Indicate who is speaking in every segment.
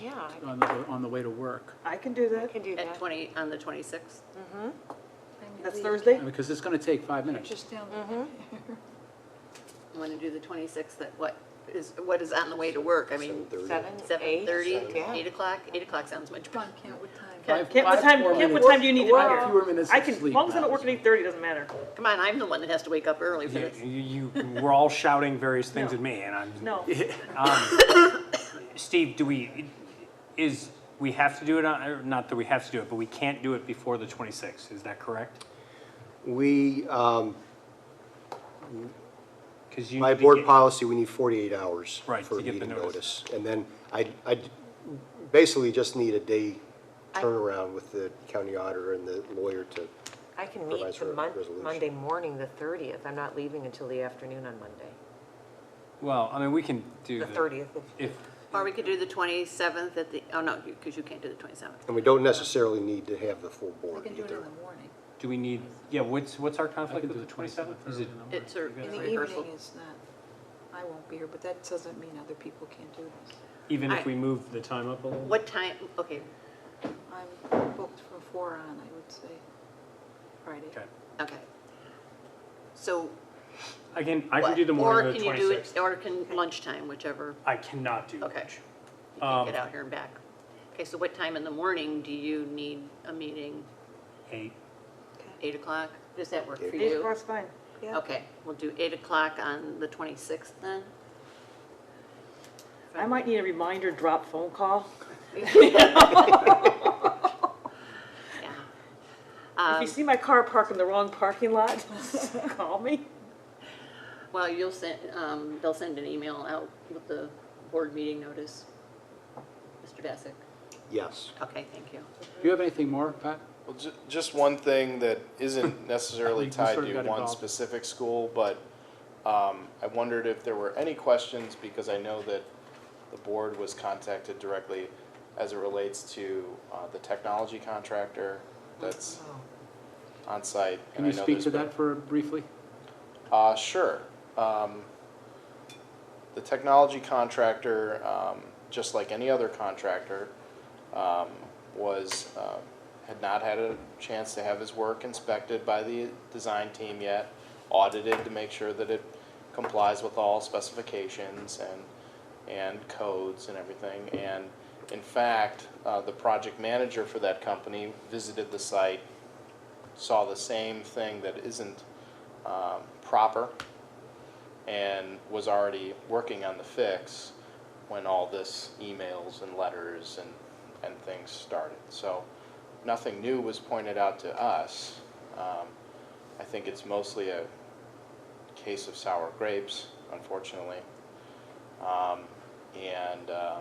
Speaker 1: Yeah,
Speaker 2: on the, on the way to work.
Speaker 3: I can do
Speaker 1: I
Speaker 3: that.
Speaker 1: can do
Speaker 4: At
Speaker 1: that.
Speaker 4: 20, on the 26th?
Speaker 3: That's Thursday?
Speaker 2: Because it's going to take five minutes.
Speaker 5: Just down.
Speaker 4: Want to do the 26th at what is, what is on the way to work? I mean,
Speaker 1: Seven, eight?
Speaker 4: 7:30,
Speaker 1: Yeah.
Speaker 4: 8 o'clock? 8 o'clock sounds much
Speaker 5: Come
Speaker 4: better.
Speaker 5: on, count what time.
Speaker 4: Okay.
Speaker 2: Five-
Speaker 3: Kent, what
Speaker 2: five
Speaker 3: time,
Speaker 2: more
Speaker 3: Kent, what
Speaker 2: minutes.
Speaker 3: time do you need to be
Speaker 2: Five
Speaker 3: here?
Speaker 2: Fewer minutes
Speaker 3: I
Speaker 2: of
Speaker 3: can, as
Speaker 2: sleep.
Speaker 3: long as I don't work at
Speaker 2: hours.
Speaker 3: eight thirty, doesn't matter.
Speaker 4: Come on, I'm the one that has to wake up early for
Speaker 6: You,
Speaker 4: this.
Speaker 6: you you were all shouting various things at me, and I'm.
Speaker 3: No.
Speaker 6: Steve, do we, is, we have to do it on, or not that we have to do it, but we can't do it before the 26th, is that correct?
Speaker 7: We, um,
Speaker 6: Because you.
Speaker 7: by
Speaker 6: need to
Speaker 7: board
Speaker 6: get-
Speaker 7: policy, we need 48 hours
Speaker 6: Right,
Speaker 7: for
Speaker 6: to
Speaker 7: a
Speaker 6: get the
Speaker 7: meeting notice.
Speaker 6: notice.
Speaker 7: And then I, I basically just need a day turnaround with the county auditor and the lawyer to,
Speaker 1: I can meet
Speaker 7: Supervisor
Speaker 1: the Mon-
Speaker 7: resolution.
Speaker 1: Monday morning, the 30th. I'm not leaving until the afternoon on Monday,
Speaker 6: Well, I mean, we can do.
Speaker 1: the 30th. of-
Speaker 6: If,
Speaker 4: Or we could do the 27th at the, oh, no, because you can't do the 27th.
Speaker 7: and we don't necessarily need to have the full
Speaker 5: I
Speaker 7: board
Speaker 5: can do it in
Speaker 7: either.
Speaker 5: the morning.
Speaker 6: do we need, yeah, what's, what's our conflict
Speaker 2: can
Speaker 6: with
Speaker 2: do
Speaker 6: the
Speaker 2: the
Speaker 6: 27th?
Speaker 2: 27th
Speaker 6: Is it,
Speaker 2: or-
Speaker 4: It's a
Speaker 5: In
Speaker 4: it's
Speaker 5: the
Speaker 4: a rehearsal.
Speaker 5: evening is not, I won't be here, but that doesn't mean other people can't do this.
Speaker 6: even if
Speaker 4: I-
Speaker 6: we move the time up a little?
Speaker 4: What time, okay,
Speaker 5: I'm booked from four on, I would say, Friday.
Speaker 6: Okay.
Speaker 4: okay. So.
Speaker 6: I can, I can
Speaker 4: what-
Speaker 6: do the morning of the
Speaker 4: Or can you do it,
Speaker 6: 26th.
Speaker 4: or can lunchtime, whichever,
Speaker 6: I cannot do
Speaker 4: Okay.
Speaker 6: lunch.
Speaker 4: you can
Speaker 6: Um,
Speaker 4: get out here and back. Okay, so what time in the morning do you need a meeting?
Speaker 6: Eight.
Speaker 4: Eight o'clock? Does that work for
Speaker 3: Eight
Speaker 4: you?
Speaker 3: o'clock's fine.
Speaker 5: Yeah.
Speaker 4: Okay, we'll do eight o'clock on the twenty-sixth then.
Speaker 3: I might need a reminder drop phone call.
Speaker 4: Yeah.
Speaker 2: Um,
Speaker 3: If you see my car parked in the wrong parking lot, call me.
Speaker 4: Well, you'll send, um, they'll send an email out with the board meeting notice. Mr. Bassett?
Speaker 7: Yes.
Speaker 4: Okay, thank you.
Speaker 2: Do you have anything more, Pat?
Speaker 8: Well, ju- just one thing that isn't necessarily
Speaker 2: You
Speaker 8: tied
Speaker 2: sort of
Speaker 8: to
Speaker 2: got
Speaker 8: one
Speaker 2: involved.
Speaker 8: specific school, but um, I wondered if there were any questions, because I know that the board was contacted directly as it relates to uh, the technology contractor that's on site. and
Speaker 2: Can
Speaker 8: I
Speaker 2: you
Speaker 8: know
Speaker 2: speak
Speaker 8: there's
Speaker 2: to
Speaker 8: been-
Speaker 2: that for briefly?
Speaker 8: uh, sure. Um, the technology contractor, um, just like any other contractor, um, was, uh, had not had a chance to have his work inspected by the design team yet, audited to make sure that it complies with all specifications and, and codes and everything. And in fact, uh, the project manager for that company visited the site, saw the same thing that isn't um, proper and was already working on the fix when all this emails and letters and, and things started. So nothing new was pointed out to us. Um, I think it's mostly a case of sour grapes, unfortunately. Um, and, uh, uh,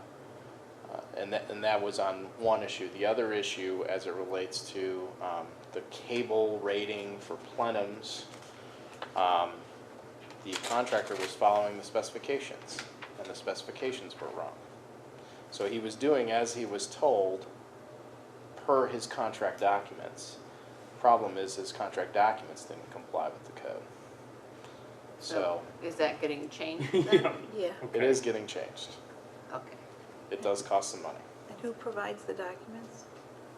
Speaker 8: and that, and that was on one issue. The other issue, as it relates to um, the cable rating for plenums, um, the contractor was following the specifications, and the specifications were wrong. So he was doing as he was told per his contract documents. Problem is, his contract documents didn't comply with the code. So
Speaker 4: Is that getting changed then?
Speaker 5: Yeah,
Speaker 8: it is getting changed.
Speaker 4: Okay.
Speaker 8: It does cost some money.
Speaker 5: and who provides the documents?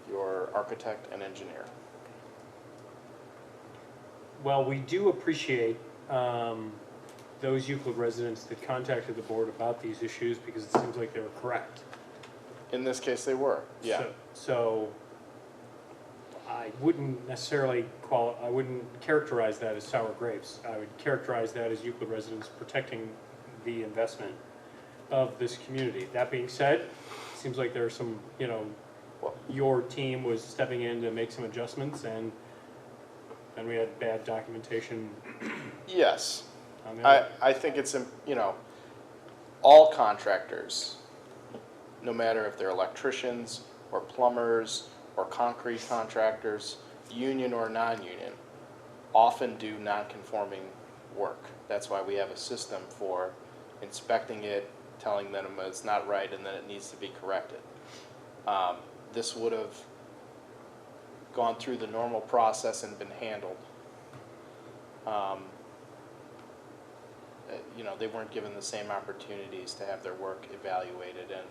Speaker 8: Your architect and engineer.
Speaker 6: Well, we do appreciate um, those Euclid residents that contacted the board about these issues because it seems like they were correct.
Speaker 8: In this case, they were, yeah.
Speaker 6: So- So I wouldn't necessarily qual, I wouldn't characterize that as sour grapes. I would characterize that as Euclid residents protecting the investment of this community. That being said, it seems like there are some, you know,
Speaker 8: Well-
Speaker 6: your team was stepping in to make some adjustments and then we had bad documentation
Speaker 8: Yes,
Speaker 6: on the
Speaker 8: I,
Speaker 6: other.
Speaker 8: I think it's, im- you know, all contractors, no matter if they're electricians or plumbers or concrete contractors, union or non-union, often do non-conforming work. That's why we have a system for inspecting it, telling them it's not right and that it needs to be corrected. Um, This would have gone through the normal process and been handled. Um, uh, you know, they weren't given the same opportunities to have their work evaluated and